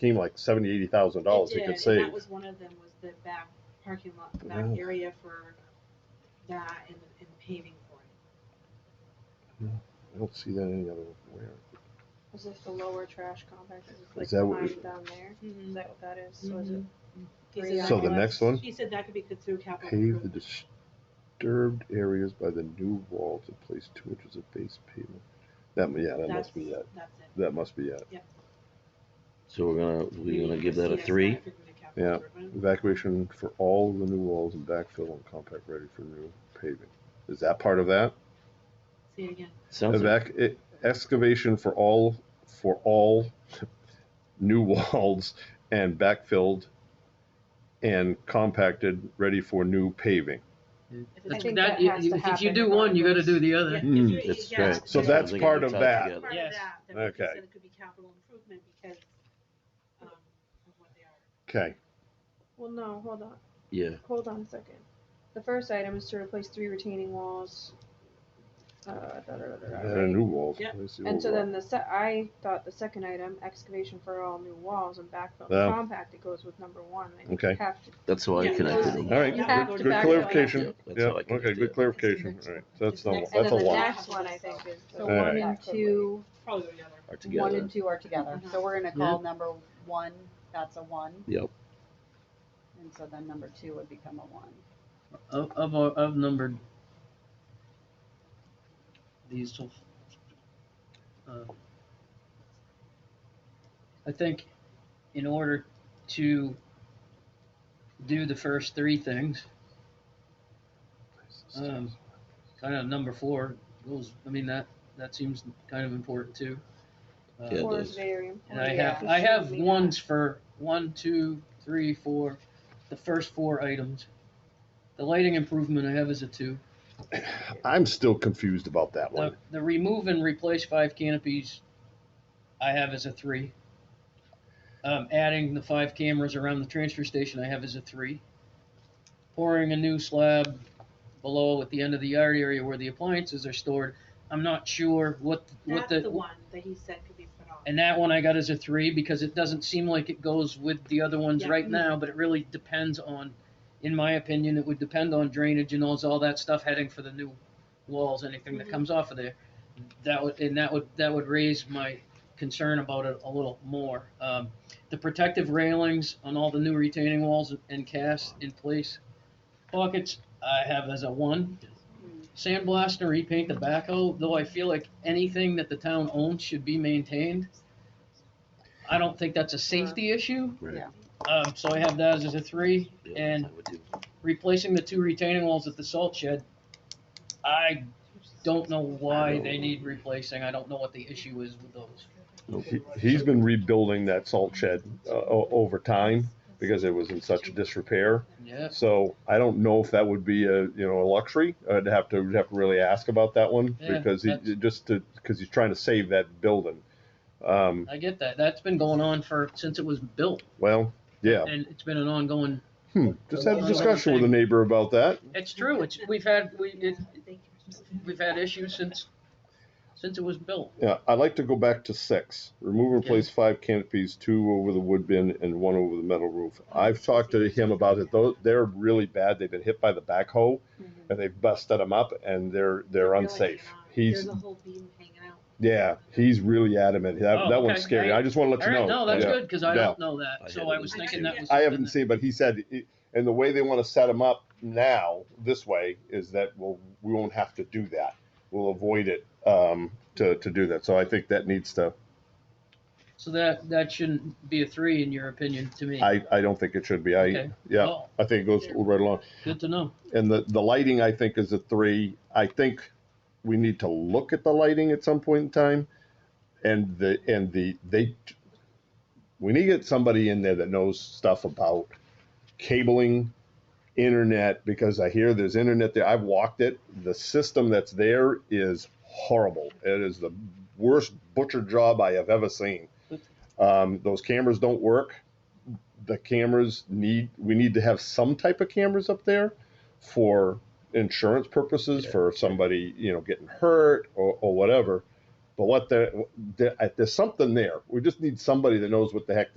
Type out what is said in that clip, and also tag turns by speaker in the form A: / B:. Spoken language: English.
A: seemed like seventy, eighty thousand dollars
B: It
A: we
B: did,
A: could
B: and
A: save.
B: That was one of them, was the back parking lot, the
A: Wow.
B: back area for that and, and paving for it.
A: I don't see that any other where.
C: Is this the lower trash compact? Is
A: Is
C: this
A: that
C: like
A: what we-
C: mine down there?
D: Mm-hmm.
C: Is that what that is? So is it?
B: Mhm. He said
C: three
B: that
A: So the
B: could-
A: next one,
B: He said that could be good through capital.
A: pave the
B: improvement.
A: disturbed areas by the new wall to place two inches of base pavement. That, yeah, that must be
B: That's-
A: it.
B: That's it.
A: That must be it.
E: So we're gonna, we're gonna give that a
B: CSI
E: three?
B: could be the capital
A: Yeah.
B: improvement.
A: Evacuation for all of the new walls and backfill and compact ready for new paving. Is that part of that?
B: Say it again.
E: Sounds like,
A: Evac, e- excavation for all, for all new walls and backfilled and compacted, ready for new paving.
B: If
C: I
B: it's-
C: think
D: That,
C: that
D: you-
C: has
D: you-
C: to
D: if you
C: happen
D: do one, you gotta do the
B: Yeah,
D: other.
B: if you-
E: That's
B: yeah,
E: right.
A: So
B: if
A: Mm, that's
B: you-
A: part of
E: Sounds like
A: that.
E: it's all
B: part of
D: Yes.
B: that, then we
A: Okay.
B: said It could be capital improvement because, um, of what they are.
A: Okay,
C: Well, no, hold on.
E: Yeah,
C: Hold on a second. The first item is to replace three retaining walls. Uh, da, da, da, da, da,
A: and a
C: right?
A: new walls.
B: Yeah.
A: Let me see
C: And
A: what
C: so
A: we're-
C: then the se- I thought the second item, excavation for all new walls and backfill
A: Yeah.
C: compact, it goes with number one. I
A: Okay.
C: Have to,
E: that's how I
B: Yeah,
E: connected
B: because-
E: them.
A: All right,
B: yeah,
C: good-
B: we're going back
C: good
B: to that.
A: clarification.
E: Yeah, that's
A: Yeah,
E: how I can
A: okay,
E: do
A: good
E: it.
A: clarification, all right, that's
B: Just
A: the,
B: next-
C: and
A: that's a
C: then the
A: lot.
C: next one I think is the
F: So
A: Alright.
C: one and two.
B: Probably the other.
E: Are
F: One
E: together.
F: and two are together, so we're gonna call number one, that's a one,
E: Yep,
F: and so then number two would become a one.
D: I've, I've, al- I've numbered these till, uh, I think in order to do the first three things, um, kind of number four goes, I mean, that, that seems kind of important too. Uh,
E: Yeah, it
C: Four is
E: does.
C: very important.
D: And I
F: Yeah.
D: have, I have
C: We should leave
D: ones for one, two, three, four, the first four items. The lighting improvement I have is a two.
A: I'm still confused about that
D: The,
A: one.
D: the remove and replace five canopies I have as a three. Um, adding the five cameras around the transfer station I have as a three. Pouring a new slab below at the end of the yard area where the appliances are stored. I'm not sure what,
B: That's
D: what the.
B: the one that he said could be put on.
D: And that one I got as a three because it doesn't seem like it goes with the other ones
B: Yeah.
D: right now, but it really depends on, in my opinion, it would depend on drainage and all, all that stuff heading for the new walls, anything that
B: Mhm.
D: comes off of there. That would, and that would, that would raise my concern about it a little more. Um, the protective railings on all the new retaining walls and casts in place. Buckets, I have as a one. Sandblast and repaint the backhoe, though I feel like anything that the town owns should be maintained. I don't think that's a safety issue,
E: right.
F: Yeah.
D: um, so I have that as a three,
E: Yeah,
D: and
E: I would do.
D: replacing the two retaining walls at the salt shed. I don't know why they need replacing, I don't know what the issue is with those.
A: He- He's been rebuilding that salt shed, uh, o- over time because it was in such disrepair.
D: Yes,
A: So I don't know if that would be a, you know, a luxury. I'd have to, we'd have to really ask about that one
D: Yeah,
A: because he,
D: that's-
A: just to, because he's trying to save that building. Um,
D: I get that, that's been going on for, since it was built,
A: well, yeah,
D: and it's been an ongoing,
A: hmm, just had a discussion with a neighbor about that.
D: it's true, it's, we've had, we, it,
B: Thank you.
D: we've had issues since, since it was built.
A: Yeah, I'd like to go back to six. Remove and replace five canopies, two over the wood bin and one over the metal roof. I've talked to him about it. Those, they're really bad. They've been hit by the backhoe
D: Mm-hmm.
A: and they've busted them up and they're, they're
B: They're like
A: unsafe.
B: hanging on.
A: He's,
B: There's a whole beam hanging out.
A: yeah, he's really adamant. That,
D: Oh,
A: that
D: okay.
A: one's scary. I just want to let
D: All
A: you know.
D: right, no, that's
A: Yeah.
D: good, cause I
A: Yeah.
D: don't know
E: I
D: that, so
E: haven't
D: I was
E: seen
D: thinking
B: it.
D: that was.
A: I
D: something
A: haven't
D: that-
A: seen, but he said, it- and the way they want to set them up now this way is that we'll, we won't have to do that. We'll avoid it um, to, to do that. So I think that needs to,
D: So that, that shouldn't be a three in your opinion to me.
A: I, I don't think it should be. I,
D: Okay.
A: yeah,
D: Well,
A: I think it goes right along.
D: Good to know.
A: And the, the lighting, I think, is a three. I think we need to look at the lighting at some point in time. And the, and the, they, we need to get somebody in there that knows stuff about cabling, internet, because I hear there's internet there. I've walked it. The system that's there is horrible. It is the worst butcher job I have ever seen. Um, those cameras don't work. The cameras need, we need to have some type of cameras up there for insurance purposes for somebody you know getting hurt or, uh, or whatever but what the, the there's something there we just need somebody that knows what the heck